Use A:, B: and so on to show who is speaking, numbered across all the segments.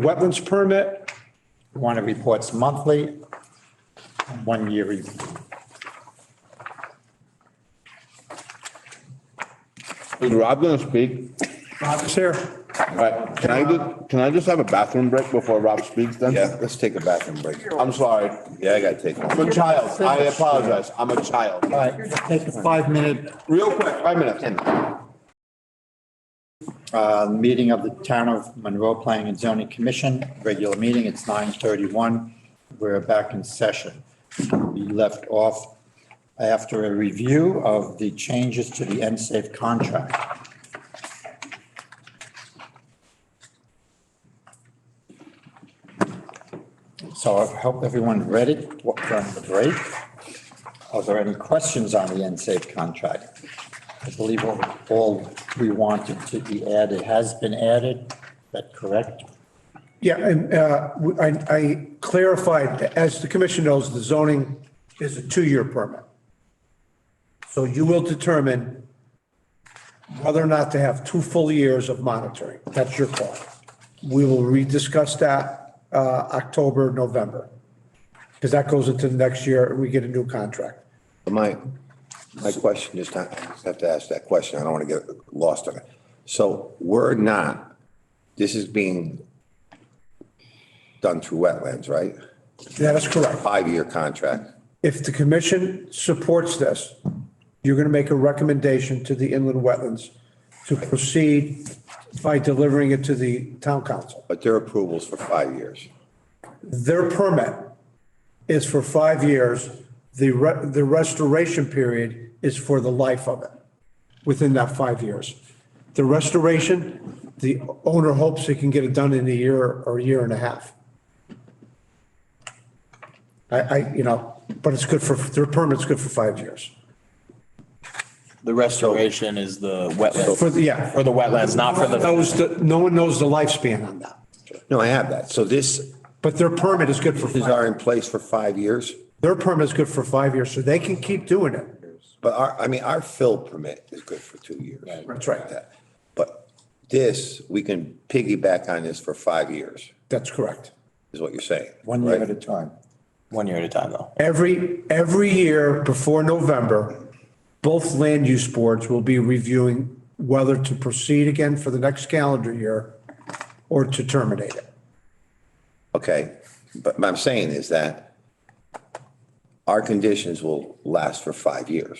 A: Wetlands permit, one of reports monthly, one year review.
B: Is Rob gonna speak?
A: Bob is here.
B: All right, can I just, can I just have a bathroom break before Rob speaks then?
C: Yeah, let's take a bathroom break.
B: I'm sorry.
C: Yeah, I gotta take one.
B: I'm a child. I apologize. I'm a child.
A: All right, take a five-minute
B: Real quick, five minutes.
A: uh, meeting of the Town of Monroe Planning and Zoning Commission, regular meeting, it's 9:31. We're back in session. We left off after a review of the changes to the NSAFE contract. So I hope everyone read it during the break. Are there any questions on the NSAFE contract? I believe all- all we wanted to be added has been added, is that correct?
D: Yeah, and uh, we- I I clarified, as the commission knows, the zoning is a two-year permit. So you will determine whether or not to have two full years of monitoring. That's your call. We will rediscuss that uh, October, November, because that goes into the next year, we get a new contract.
C: My, my question is not, I just have to ask that question. I don't want to get lost on it. So we're not, this is being done through wetlands, right?
D: That is correct.
C: Five-year contract.
D: If the commission supports this, you're going to make a recommendation to the inland wetlands to proceed by delivering it to the town council.
C: But their approval's for five years.
D: Their permit is for five years. The, re- the restoration period is for the life of it, within that five years. The restoration, the owner hopes he can get it done in a year or a year and a half. I, I, you know, but it's good for, their permit's good for five years.
E: The restoration is the wetland,
D: For, the- yeah.
E: for the wetlands, not for the,
D: Knows the- no one knows the lifespan on that,
C: No, I have that. So this
D: but their permit is good for,
C: is
D: five-
C: are in place for five years?
D: their permit is good for five years, so they can keep doing it.
C: But our, I mean, our fill permit is good for two years.
D: That's right.
C: That- But this, we can piggyback on this for five years,
D: That's correct.
C: is what you're saying.
A: One year
C: right?
A: at a time.
E: one year at a time though.
D: Every, every year before November, both land use boards will be reviewing whether to proceed again for the next calendar year or to terminate it.
C: Okay, but what I'm saying is that our conditions will last for five years.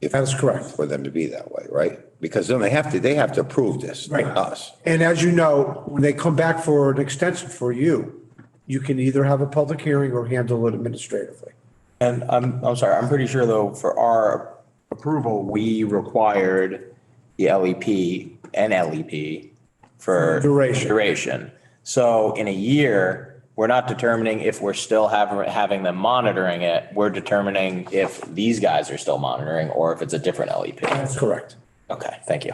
C: if-
D: That is correct.
C: For them to be that way, right? Because then they have to, they have to approve this,
D: Right.
C: not us.
D: And as you know, when they come back for an extension for you, you can either have a public hearing or handle it administratively.
E: And I'm, I'm sorry, I'm pretty sure though, for our approval, we required the LEP and LEP for.
D: Duration.
E: Duration. So in a year, we're not determining if we're still having, having them monitoring it. We're determining if these guys are still monitoring or if it's a different LEP.
D: That's correct.
E: Okay, thank you.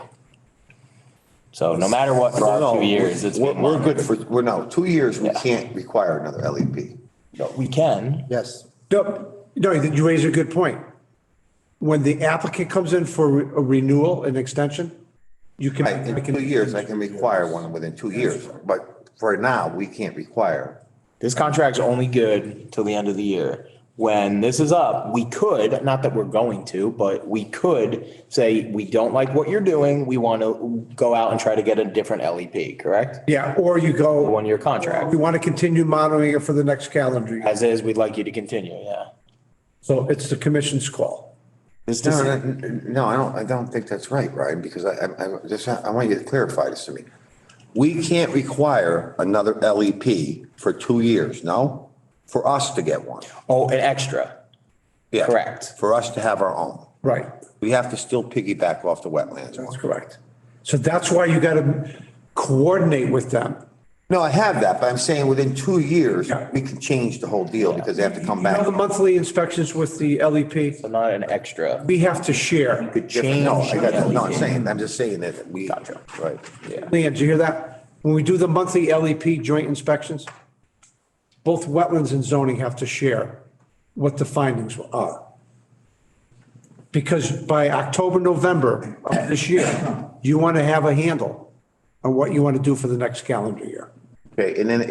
E: So no matter what, for our two years, it's.
C: We're,
E: been
C: we're
E: monitored.
C: good for, we're, no, two years, we
E: Yeah.
C: can't require another E LEP.
E: We can.
A: Yes.
D: No, no, you raise a good point. When the applicant comes in for a renewal and extension, you can.
C: Right, in two years, I can require one within two years, but for now, we can't require.
E: This contract's only good till the end of the year. When this is up, we could, not that we're going to, but we could say, we don't like what you're doing. We want to go out and try to get a different LEP, correct?
D: Yeah, or you go.
E: One year contract.
D: We want to continue monitoring it for the next calendar year.
E: As is, we'd like you to continue, yeah.
D: So it's the commission's call.
E: This
C: No,
E: decision-
C: no, no, I don't, I don't think that's right, Ryan, because I, I, I just, I want you to clarify this to me. We can't require another LEP for two years, no? For us to get one.
E: oh, an extra.
C: Yeah.
E: Correct.
C: For us to have our own.
D: Right,
C: We have to still piggyback off the wetlands.
D: that's correct. So that's why you got to coordinate with them.
C: No, I have that, but I'm saying within two years,
D: Yeah.
C: we can change the whole deal because they have to come
D: You know
C: back.
D: the monthly inspections with the LEP,
E: So Not an extra.
D: we have to share.
E: change
C: No, I got that. No, I'm
E: LEP.
C: saying, I'm just saying that we, right.
D: Leanne, did you hear that? When we do the monthly LEP joint inspections, both wetlands and zoning have to share what the findings are. Because by October, November of this year, you want to have a handle on what you want to do for the next calendar year.
C: Okay, and then